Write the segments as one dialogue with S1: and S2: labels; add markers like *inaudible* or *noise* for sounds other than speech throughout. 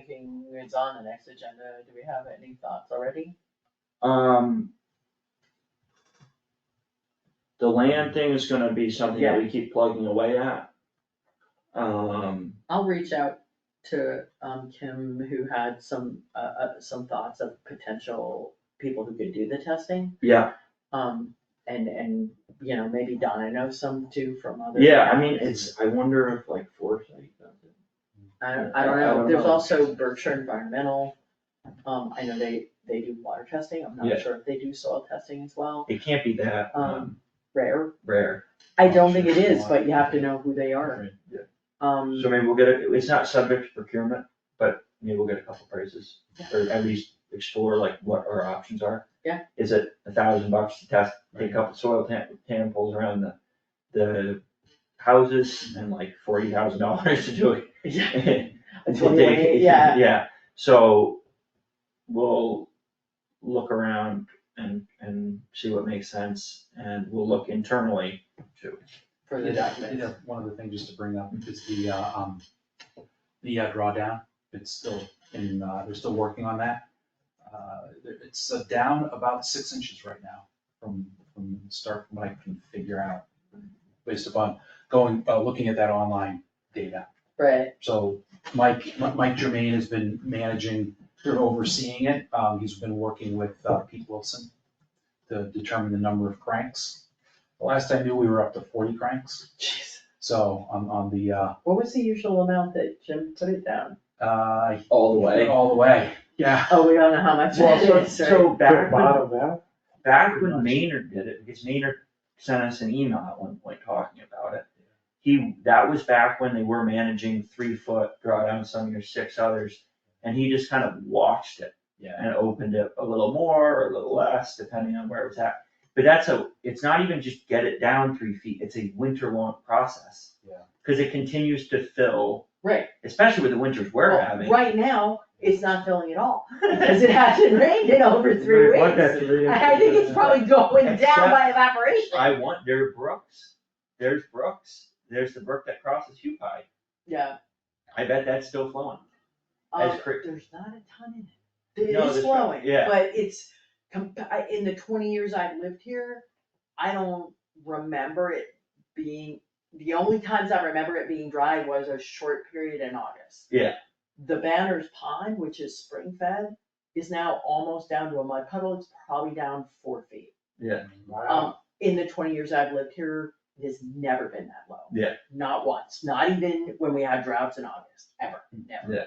S1: periods on the next agenda, do we have any thoughts already?
S2: Um. The land thing is gonna be something that we keep plugging away at. Um,
S1: I'll reach out to, um, Kim, who had some, uh, uh, some thoughts of potential people who could do the testing.
S2: yeah,
S1: Um, and, and, you know, maybe Donna knows some too from other.
S2: yeah, I mean,
S1: towns.
S2: it's, I wonder if like Foresight does it.
S1: I don't,
S2: I-
S1: I don't
S2: I
S1: know,
S2: don't
S1: there's
S2: know.
S1: also Berkshire Environmental, um, I know they, they do water testing, I'm
S2: Yeah.
S1: not sure if they do soil testing as well,
S2: It can't be that um
S1: rare.
S2: rare.
S1: I
S3: I'm
S1: don't think
S3: sure
S1: it is,
S3: water-
S1: but you have to know who they are, um,
S2: So maybe we'll get it, it's not subject to procurement, but maybe we'll get a couple prices, or at least explore like what our options are.
S1: Yeah.
S2: Is it a thousand bucks to test, take a couple soil tam- samples around the, the houses and like forty thousand dollars to do
S1: yeah,
S2: *laughs* it?
S1: a 28, yeah,
S2: *laughs* Yeah, so we'll look around and, and see what makes sense, and we'll look internally too.
S1: for the
S3: Yeah,
S1: documents.
S3: yeah, One other thing just to bring up is the, uh, um, the uh, drawdown, it's still in, uh, they're still working on that. Uh, there- It's uh, down about six inches right now from, from the start, from what I can figure out, based upon going, uh, looking at that online data.
S1: Right,
S3: So Mike, Mike Germain has been managing, sort of overseeing it, um, he's been working with uh, Pete Wilson to determine the number of cranks. The Last I knew, we were up to forty cranks.
S1: jeez,
S3: So on, on the, uh,
S1: what was the usual amount that Jim put it down?
S3: uh,
S2: All
S3: all the way, yeah.
S1: Oh, we don't know how much
S2: Well,
S1: it *laughs*
S2: so,
S1: is, right?
S2: so back when,
S4: out?
S2: back when Maynard did it, because Maynard sent us an email at one point talking about it. He, that was back when they were managing three foot drawdown, some years six others, and he just kind of watched it.
S3: Yeah.
S2: And opened it a little more or a little less, depending on where it was at. But that's a, it's not even just get it down three feet, it's a winter long process.
S3: Yeah.
S2: Cause it continues to fill,
S1: Right,
S2: especially with the winters we're
S1: well,
S2: having.
S1: right now, it's not filling at all, *laughs* because it hasn't rained in over three
S4: Right, what
S1: weeks.
S4: that three inches
S1: I think it's
S4: is.
S1: probably going down by evaporation.
S2: I want, there are brooks, there's brooks, there's the brook that crosses Hupai,
S1: Yeah.
S2: I bet that's still flowing.
S1: Um,
S2: As cra-
S1: there's not a ton in it. It
S2: No,
S1: is
S2: that's right,
S1: flowing,
S2: yeah.
S1: but it's, com- I- in the twenty years I've lived here, I don't remember it being, the only times I remember it being dry was a short period in August.
S2: Yeah.
S1: The Banner's Pond, which is spring fed, is now almost down to a mud puddle, it's probably down four feet.
S2: Yeah.
S1: Um, in the twenty years I've lived here, it has never been that low.
S2: Yeah.
S1: Not once, not even when we had droughts in August, ever, never.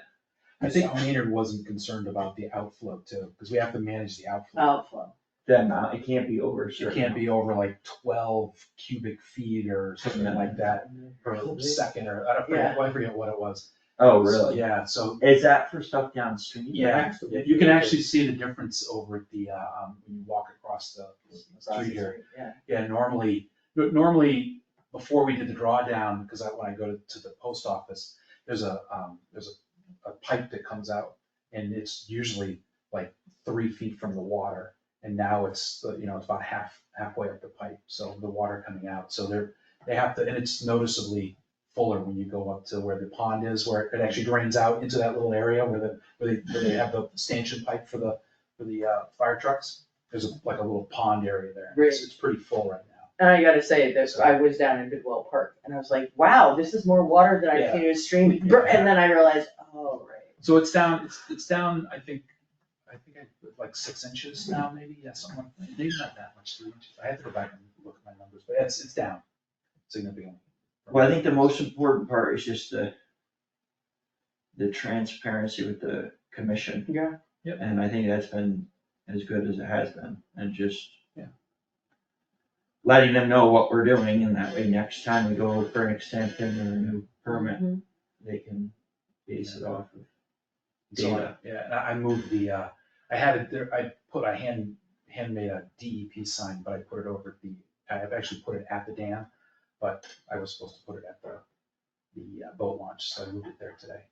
S3: I think Maynard wasn't concerned about the outflow too, because we have to manage the
S2: Hmm.
S3: outflow.
S1: Outflow.
S2: The amount, it can't be over a
S3: It
S2: certain.
S3: can't be over like twelve cubic feet or something like that per second, or I don't forget, I forget what it was.
S2: Oh, really?
S3: Yeah, so,
S2: Is that for stuff downstream?
S3: yeah, you can actually see the difference over at the, uh, um, when you walk across the street here.
S1: Yeah,
S3: Yeah, normally, n- normally, before we did the drawdown, because I, when I go to, to the post office, there's a, um, there's a, a pipe that comes out, and it's usually like three feet from the water, and now it's, uh, you know, it's about half, halfway up the pipe, so the water coming out, so they're, they have to, and it's noticeably fuller when you go up to where the pond is, where it actually drains out into that little area where the, where they, where they have the stanchion pipe for the, for the, uh, fire trucks, there's a- like a little pond area there, and it's,
S1: Right.
S3: it's pretty full right now.
S1: and I gotta say this, I was down in Bidwell Park and I was like, wow, this is more water than I've
S3: Yeah.
S1: seen in a stream, and then I realized, oh, right.
S3: So it's down, it's, it's down, I think, I think I put like six inches now, maybe, yeah, something like, maybe not that much, three inches, I have to go back and look at my numbers, but it's, it's down significantly.
S2: Well, I think the most important part is just the, the transparency with the commission.
S1: Yeah.
S3: Yep.
S2: And I think that's been as good as it has been, and just.
S3: Yeah.
S2: Letting them know what we're doing, and that way next time we go for an extension or a new permit,
S1: Mhm.
S2: they can base it off of.
S3: So, I-
S2: Data.
S3: yeah, and I, I moved the, uh, I had it there, I put, I hand, handmade a DEP sign, but I put it over the, I have actually put it at the dam, but I was supposed to put it at the, the uh, boat launch, so I moved it there today.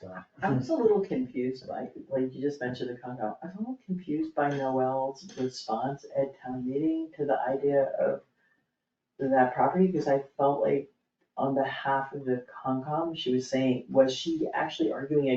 S3: So,
S1: I was a little confused by, like, you just mentioned the condo, I was a little confused by Noel's response at town meeting to the idea of that property, because I felt like on behalf of the Concom, she was saying, was she actually arguing